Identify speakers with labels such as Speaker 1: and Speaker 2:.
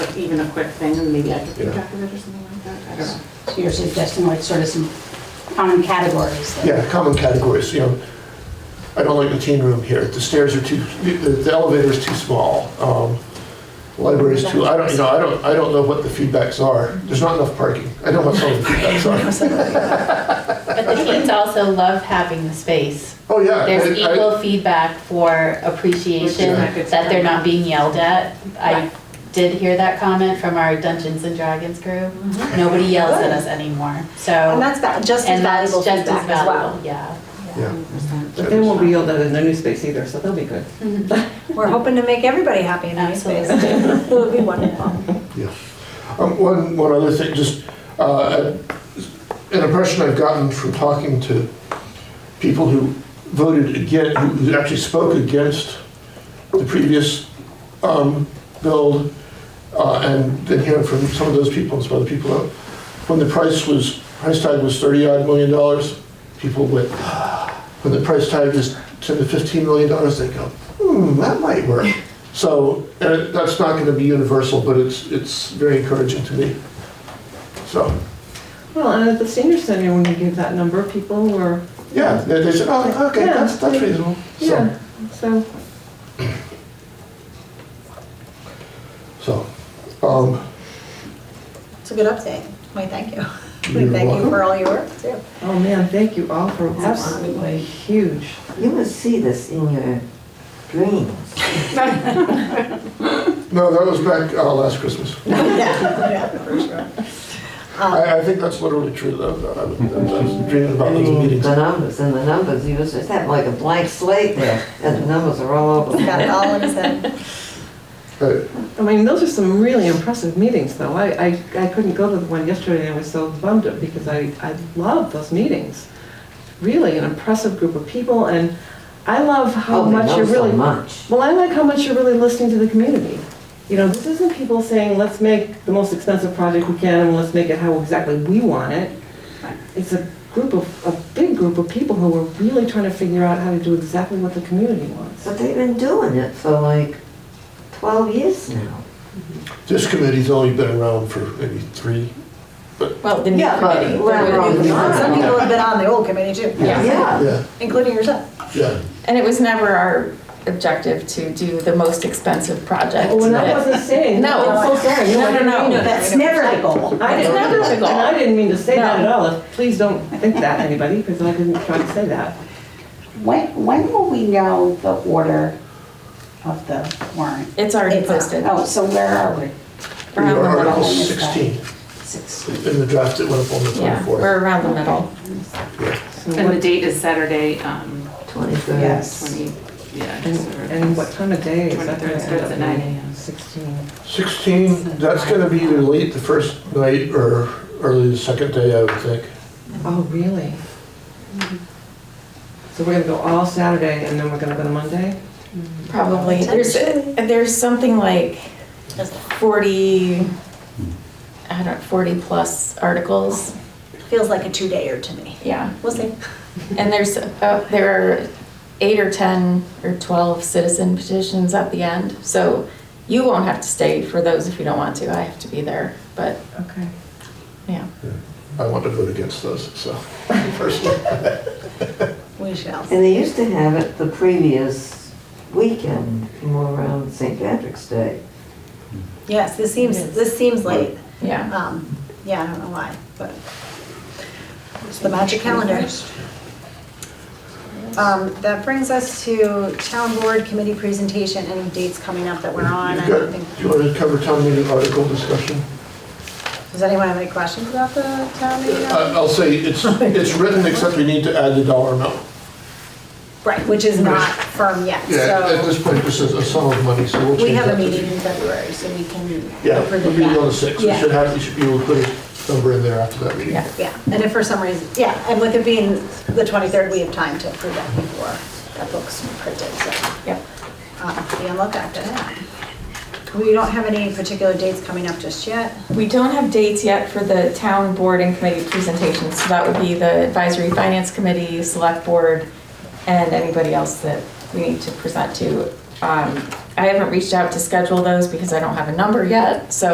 Speaker 1: even a quick thing, and maybe I could keep
Speaker 2: Yeah.
Speaker 1: track of it or something like that, I don't know.
Speaker 3: So you're suggesting like sort of some common categories? that-
Speaker 2: Yeah, common categories, you know, I don't like the teen room here, the stairs are too, the the elevator's too small, um, library's too, I don't, you know, I don't, I don't know what the feedbacks are, there's not enough parking, I know what some of the feedbacks are.
Speaker 4: But the kids also love having the space.
Speaker 2: Oh, yeah.
Speaker 4: There's
Speaker 2: I- I-
Speaker 4: equal feedback for appreciation,
Speaker 2: Which
Speaker 1: is-
Speaker 4: that they're not being yelled at. I
Speaker 1: Right.
Speaker 4: did hear that comment from our Dungeons and Dragons group.
Speaker 1: Mm-hmm.
Speaker 4: Nobody yells at us anymore,
Speaker 5: And
Speaker 4: so.
Speaker 5: that's va- just as
Speaker 4: And that's
Speaker 5: valuable
Speaker 4: just as
Speaker 5: feedback as
Speaker 4: valuable,
Speaker 5: well.
Speaker 4: yeah.
Speaker 2: Yeah.
Speaker 6: But they won't be yelled at in their new space either, so that'll be good.
Speaker 5: We're hoping to make everybody happy in that space. It would be wonderful.
Speaker 2: Yeah. Um, One, one other thing, just uh, an impression I've gotten from talking to people who voted again, who actually spoke against the previous um, build, uh, and then hearing from some of those people and some other people, uh, when the price was, price tag was 30 odd million dollars, people went, when the price tag is 10 to 15 million dollars, they go, hmm, that might work. So and it- that's not going to be universal, but it's, it's very encouraging to me. So,
Speaker 6: Well, and at the senior center, when we gave that number, people were,
Speaker 2: yeah, they they said, oh, okay,
Speaker 6: Yeah.
Speaker 2: that's, that's reasonable. So,
Speaker 6: yeah, so.
Speaker 2: so, um,
Speaker 5: It's a good update. We thank you. We
Speaker 2: You're
Speaker 5: thank you
Speaker 2: welcome.
Speaker 5: for all your work too.
Speaker 6: Oh, man, thank you all for, that's
Speaker 5: Absolutely.
Speaker 6: huge.
Speaker 7: You will see this in your dreams.
Speaker 2: no, that was back uh, last Christmas.
Speaker 5: Yeah, yeah, for sure.
Speaker 6: Ah.
Speaker 5: Um,
Speaker 2: I, I think that's literally true, though. that I was I was dreaming
Speaker 7: I
Speaker 2: about those
Speaker 7: mean,
Speaker 2: meetings.
Speaker 7: the numbers and the numbers, you just have like a blank slate there, and the numbers are all over.
Speaker 5: Got it all in his head.
Speaker 2: Right.
Speaker 6: I mean, those are some really impressive meetings, though. I, I, I couldn't go to the one yesterday, and I was so bummed out because I, I love those meetings. Really, an impressive group of people, and I love how
Speaker 7: Oh, they
Speaker 6: much
Speaker 7: know
Speaker 6: you're
Speaker 7: so
Speaker 6: really.
Speaker 7: much.
Speaker 6: Well, I like how much you're really listening to the community. You know, this isn't people saying, let's make the most expensive project we can, and let's make it how exactly we want it. It's a group of, a big group of people who are really trying to figure out how to do exactly what the community wants.
Speaker 7: But they've been doing it for like 12 years now.
Speaker 2: This committee's only been around for maybe three,
Speaker 4: Well, the
Speaker 5: Yeah, but
Speaker 7: committee. Well,
Speaker 5: some people
Speaker 7: wrong.
Speaker 5: have been on the old committee too.
Speaker 4: Yeah.
Speaker 7: Yeah.
Speaker 2: yeah,
Speaker 5: Including yourself.
Speaker 2: yeah.
Speaker 8: And it was never our objective to do the most expensive project.
Speaker 6: Oh, and I
Speaker 8: But-
Speaker 6: wasn't saying,
Speaker 8: No.
Speaker 6: I'm so sorry. No, I
Speaker 8: No, no,
Speaker 6: didn't
Speaker 8: no.
Speaker 6: mean it.
Speaker 5: That's never the goal.
Speaker 6: I didn't,
Speaker 8: It's never
Speaker 6: and
Speaker 8: the goal.
Speaker 6: I didn't mean to say that
Speaker 8: No.
Speaker 6: at all, please don't think that, anybody, because I didn't try to say that.
Speaker 9: When, when will we know the order of the warrant?
Speaker 8: It's already
Speaker 5: It's out.
Speaker 8: posted.
Speaker 9: Oh, so where are we?
Speaker 2: We
Speaker 8: Around
Speaker 2: are
Speaker 8: the
Speaker 2: Article
Speaker 8: middle.
Speaker 9: is that?
Speaker 2: 16
Speaker 9: Six.
Speaker 2: in the draft that went up on the
Speaker 8: Yeah,
Speaker 2: 24th.
Speaker 8: we're around the middle.
Speaker 6: So
Speaker 1: And the
Speaker 6: what-
Speaker 1: date is Saturday, um,
Speaker 7: 23rd.
Speaker 9: Yes.
Speaker 1: twenty, yeah.
Speaker 6: And
Speaker 1: just over-
Speaker 6: and what time of day is
Speaker 1: 23rd
Speaker 6: that? gonna end
Speaker 1: starts
Speaker 6: up
Speaker 1: at 9
Speaker 6: being?
Speaker 1: a.m.
Speaker 6: 16.
Speaker 2: 16, that's going to be either late the first night or early the second day, I would think.
Speaker 6: Oh, really? So we're gonna go all Saturday and then we're gonna go to Monday?
Speaker 8: Probably. There's, there's something like 40, I don't, 40 plus articles.
Speaker 5: Feels like a two-dayer to me.
Speaker 8: Yeah.
Speaker 5: We'll see.
Speaker 8: And there's, uh, there are eight or 10 or 12 citizen petitions at the end. So you won't have to stay for those if you don't want to. I have to be there, but
Speaker 6: Okay.
Speaker 8: yeah.
Speaker 2: I want to vote against those, so, personally.
Speaker 5: We shall.
Speaker 7: And they used to have it the previous weekend, more around St. Patrick's Day.
Speaker 5: Yes, this seems, this seems late.
Speaker 8: Yeah.
Speaker 5: Um, yeah, I don't know why, but it's the magic calendar. Um, that brings us to town board committee presentation, any dates coming up that we're on?
Speaker 2: You've
Speaker 5: I
Speaker 2: got-
Speaker 5: don't think-
Speaker 2: Do you want to cover town meeting article discussion?
Speaker 5: Does anyone have any questions about the town meeting?
Speaker 2: I- Uh, I'll say, it's, it's written, except we need to add the dollar amount.
Speaker 5: Right, which is not firm yet,
Speaker 2: Yeah, at
Speaker 5: so
Speaker 2: this point, this is a sum of money, so we'll change
Speaker 5: we have
Speaker 2: that
Speaker 5: a
Speaker 2: to-
Speaker 5: meeting in February, so we can.
Speaker 2: Yeah,
Speaker 5: approve
Speaker 2: we'll
Speaker 5: of
Speaker 2: be
Speaker 5: that.
Speaker 2: on the 6th. We
Speaker 5: Yeah.
Speaker 2: should have, we should be able to put a number in there after that meeting.
Speaker 8: Yeah.
Speaker 5: Yeah, and if for some reason, yeah, and with it being the 23rd, we have time to approve that before that book's printed, so
Speaker 8: Yep.
Speaker 5: uh, be on lookout for that. We don't have any particular dates coming up just yet.
Speaker 8: We don't have dates yet for the town board and committee presentations, so that would be the advisory finance committee, select board, and anybody else that we need to present to. Um, I haven't reached out to schedule those because I don't have a number yet, so